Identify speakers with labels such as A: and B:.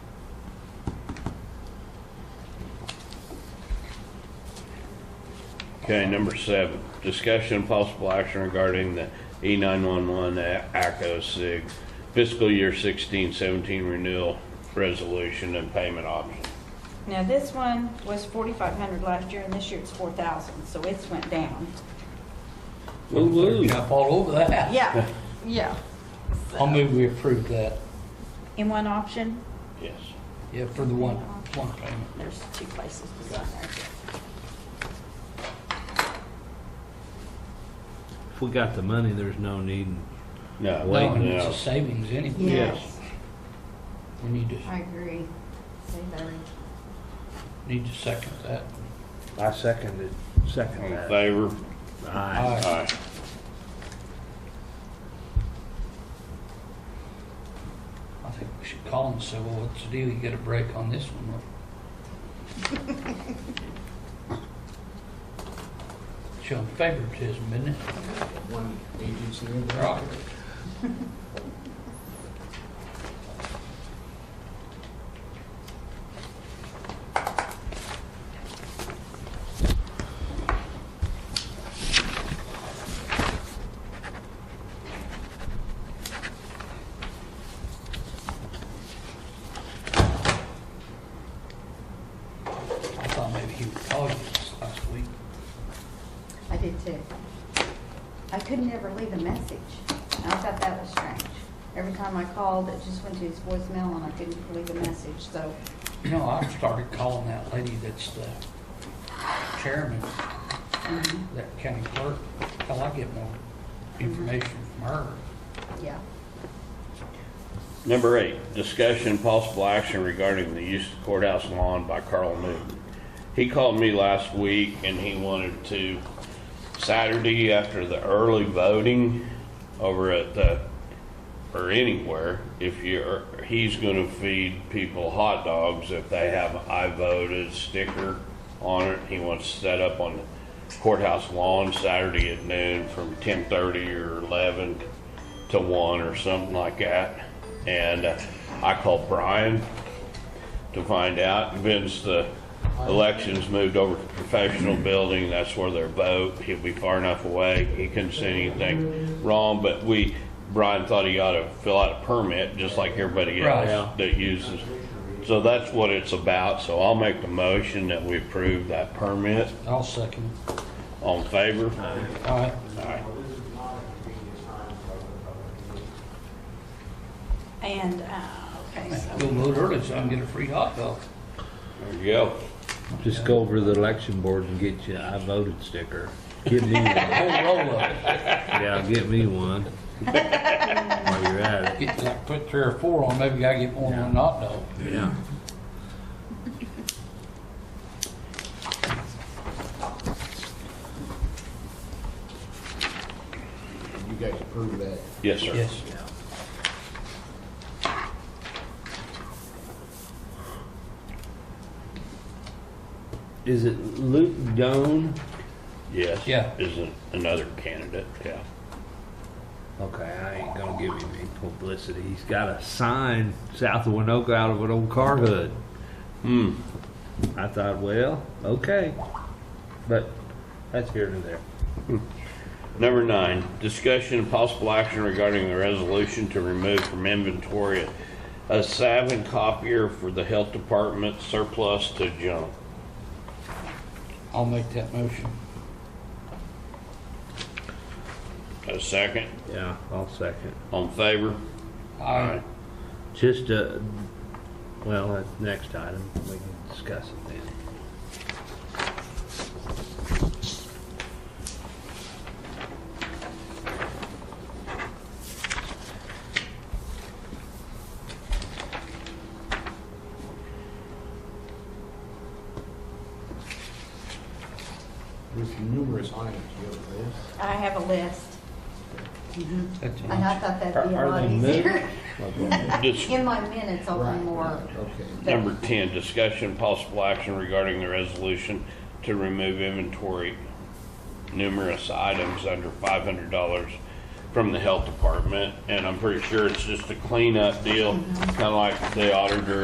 A: Okay, number seven, discussion and possible action regarding the E nine-one-one ACO SIG oh fiscal year 16-17 renewal resolution and payment option.
B: Now, this one was forty-five hundred last year, and this year it's four thousand, so it's went down.
C: Woo-woo. Jump all over that.
B: Yeah, yeah.
C: I'll move we approve that,
B: In one option,
A: Yes.
C: yeah, for the one, one payment.
B: there's two places to sign there.
D: If we got the money, there's no need.
A: No,
C: No, and it's
A: no.
C: a savings anyway.
A: Yes.
C: We need to,
E: I agree. Say better.
C: need to second that.
F: I second it.
A: All
F: Second
A: In
F: that.
A: favor?
D: Aye.
A: Aye.
C: I think we should call and say, well, what's the deal? You get a break on this one. or- Showing favoritism, isn't it?
G: one agency in there.
C: Right. I thought maybe he would call you this last week.
E: I did too. I could never leave a message. And I thought that was strange. Every time I called, it just went to his voicemail and I couldn't leave a message, so.
C: You know, I started calling that lady that's the chairman,
E: mhm,
C: that county clerk, till I get more information from her.
E: Yeah.
A: Number eight, discussion and possible action regarding the use of the courthouse lawn by Carl Newton. He called me last week and he wanted to, Saturday after the early voting over at the, or anywhere, if you're, he's gonna feed people hot dogs if they have I voted sticker on it. He wants to set up on the courthouse lawn Saturday at noon from ten thirty or eleven to one or something like that. And uh, I called Brian to find out. Vince, the elections moved over to professional building. That's where their vote. He'll be far enough away. He couldn't see anything wrong, but we, Brian thought he ought to fill out a permit, just like everybody
C: Right.
A: else that uses. So that's what it's about. So I'll make the motion that we approve that permit.
C: I'll second. it.
A: All in favor?
C: All right,
A: Aye.
B: And, uh, okay, so,
C: go vote early so I can get a free hot dog.
A: There you go.
D: Just go over to the election board and get you I voted sticker. Get me
C: A
D: one.
C: whole roll of it.
D: Yeah, get me one. While you're at it.
C: Get, like, put three or four on, maybe I get more than one hot dog.
D: Yeah.
G: You guys approve that.
A: Yes, sir.
C: Yes.
D: Is it Luke Doan?
A: Yes.
C: Yeah.
A: Is an- another candidate, yeah.
D: Okay, I ain't gonna give him any publicity. He's got a sign south of Winoka out of an old car hood.
A: Hmm.
D: I thought, well, okay. But that's here and there.
A: Number nine, discussion and possible action regarding the resolution to remove from inventory a Savin copier for the health department surplus to junk.
C: I'll make that motion.
A: A second,
D: Yeah, I'll second.
A: on favor?
C: I,
D: Just, uh, well, that's next item, we can discuss it then.
G: There's numerous items, you have a list?
B: I have a list.
C: that's
E: And I
C: it.
E: thought that'd be a
D: Are- are
E: lot
D: they
E: easier.
A: Dis-
E: In my minutes, I'll
G: Right,
E: be more.
G: Okay.
A: Number 10, discussion and possible action regarding the resolution to remove inventory numerous items under $500 from the health department. And I'm pretty sure it's just a cleanup deal, kind of like the auditor